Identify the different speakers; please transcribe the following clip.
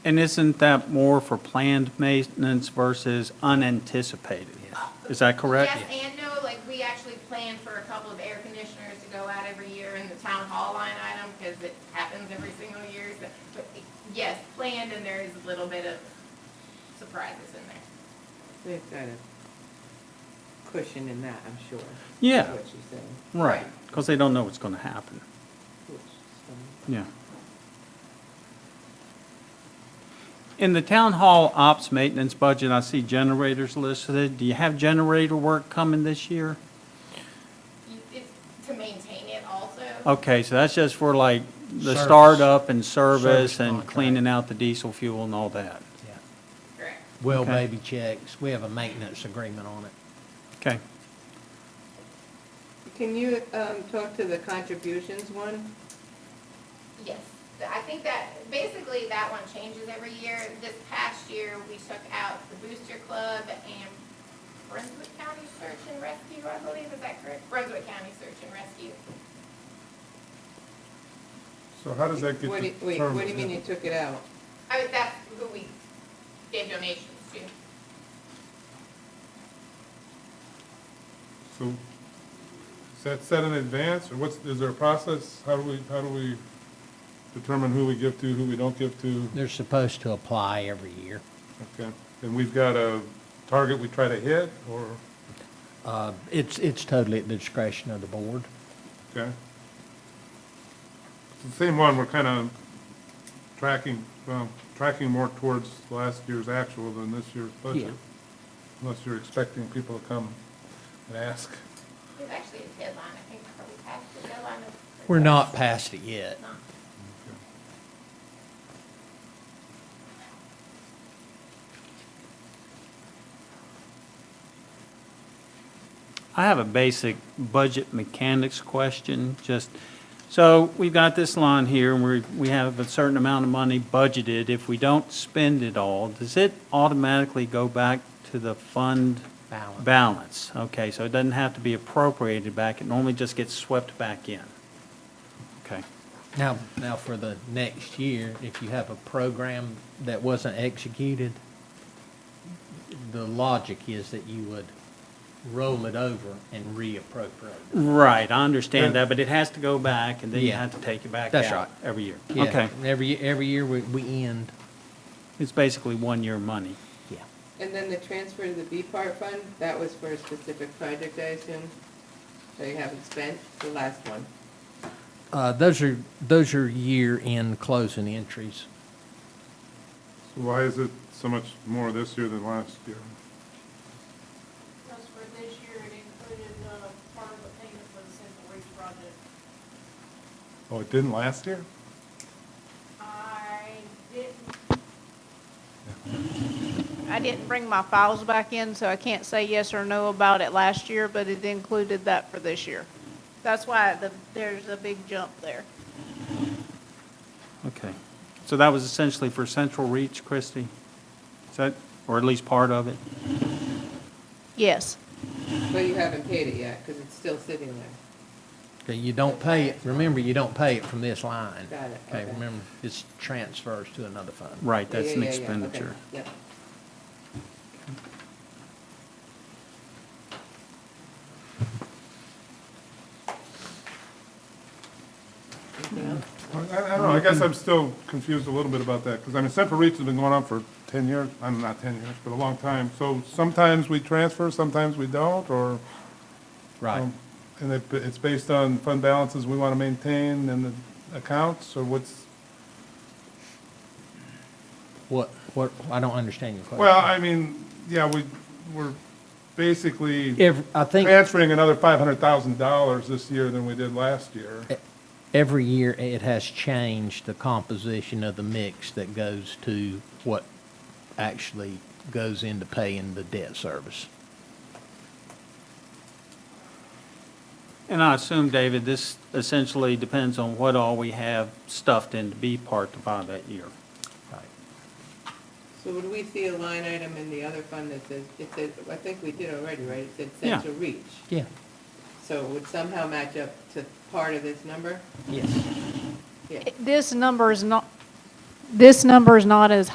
Speaker 1: And isn't that more for planned maintenance versus unanticipated? Is that correct?
Speaker 2: Yes and no, like, we actually plan for a couple of air conditioners to go out every year in the town hall line item, because it happens every single year, so, but, yes, planned, and there is a little bit of surprises in there.
Speaker 3: They've got a cushion in that, I'm sure. is
Speaker 1: Yeah.
Speaker 3: What she's saying.
Speaker 1: Right, because they don't know what's going to happen.
Speaker 3: Which is
Speaker 1: Yeah. In the town hall ops maintenance budget, I see generators listed. Do you have generator work coming this year?
Speaker 2: You- It's to maintain it also.
Speaker 1: Okay, so that's just for like the
Speaker 4: Service.
Speaker 1: startup and service
Speaker 4: Service
Speaker 1: and
Speaker 4: contract.
Speaker 1: cleaning out the diesel fuel and all that.
Speaker 4: Yeah.
Speaker 2: Correct.
Speaker 4: Well
Speaker 1: Okay.
Speaker 4: baby checks, we have a maintenance agreement on it.
Speaker 1: Okay.
Speaker 3: fun. Can you, um, talk to the contributions one?
Speaker 2: Yes, Th- I think that, basically, that one changes every year. This past year, we took out the Booster Club and Brunswick County Search and Rescue, I believe, is that correct? Brunswick County Search and Rescue.
Speaker 5: So how does that get
Speaker 3: What do, you- wait,
Speaker 5: determined?
Speaker 3: what do you mean you took it out?
Speaker 2: I mean, that's who we gave donations to.
Speaker 5: So, is that set in advance, or what's, is there a process? How do we, how do we determine who we give to, who we don't give to?
Speaker 4: They're supposed to apply every year.
Speaker 5: Okay, and we've got a target we try to hit, or,
Speaker 4: Uh, It's, it's totally at the discretion of the board.
Speaker 5: okay? It's The same one, we're kind of tracking, well, tracking more towards last year's actual than this year's budget. Unless you're expecting people to come and ask.
Speaker 2: There's actually a deadline, I think, are we past the deadline? of-
Speaker 4: We're not past it yet.
Speaker 2: Not.
Speaker 1: I have a basic budget mechanics question, just, so we've got this line here, and we, we have a certain amount of money budgeted. If we don't spend it all, does it automatically go back to the fund?
Speaker 4: Balance.
Speaker 1: Balance, okay, so it doesn't have to be appropriated back, it normally just gets swept back in. Okay,
Speaker 4: Now, now for the next year, if you have a program that wasn't executed, the logic is that you would roll it over and reappropriate. it.
Speaker 1: right, I understand that, but it has to go back, and then you
Speaker 4: Yeah.
Speaker 1: have to take it back
Speaker 4: That's
Speaker 1: out
Speaker 4: right.
Speaker 1: every year.
Speaker 4: Yeah,
Speaker 1: Okay,
Speaker 4: Every, every year we, we end,
Speaker 1: it's basically one-year money.
Speaker 4: yeah.
Speaker 3: And then the transfer to the B part fund, that was for a specific project, I assume? That you haven't spent, the last one.
Speaker 4: Uh, those are, those are year-end closing entries.
Speaker 5: So Why is it so much more this year than last year?
Speaker 6: Because for this year, it included, uh, part of the payment for the Central Reach project.
Speaker 5: Oh, it didn't last year?
Speaker 6: I didn't. I didn't bring my files back in, so I can't say yes or no about it last year, but it included that for this year. That's why the, there's a big jump there.
Speaker 1: Okay. So that was essentially for Central Reach, Christie? Is that, or at least part of it?
Speaker 6: Yes.
Speaker 3: But you haven't paid it yet, because it's still sitting there.
Speaker 4: Okay, you don't pay it, remember, you don't pay it from this line.
Speaker 3: Got it,
Speaker 4: Okay,
Speaker 3: okay.
Speaker 4: remember, it's transfers to another fund.
Speaker 1: Right,
Speaker 3: Yeah,
Speaker 1: that's
Speaker 3: yeah,
Speaker 1: an
Speaker 3: yeah, yeah, okay,
Speaker 1: expenditure.
Speaker 3: Yep. Anything else?
Speaker 5: I I don't know, I guess I'm still confused a little bit about that, because I mean, Central Reach has been going on for 10 years, I'm not 10 years, but a long time. So sometimes we transfer, sometimes we don't, or,
Speaker 4: Right.
Speaker 5: um, and it- it's based on fund balances we want to maintain and the accounts, or what's,
Speaker 4: What, what, I don't understand your question.
Speaker 5: well, I mean, yeah, we, we're basically
Speaker 4: Every, I think
Speaker 5: transferring another $500,000 this year than we did last year.
Speaker 4: every year it has changed the composition of the mix that goes to what actually goes into paying the debt service.
Speaker 1: And I assume, David, this essentially depends on what all we have stuffed in to be part to buy that year.
Speaker 4: Right.
Speaker 3: So would we see a line item in the other fund that says, it says, I think we did already, right? It said
Speaker 1: Yeah.
Speaker 3: central reach.
Speaker 4: Yeah.
Speaker 3: So it would somehow match up to part of this number?
Speaker 4: Yes.
Speaker 3: Yeah.
Speaker 6: This number is not, this number is not as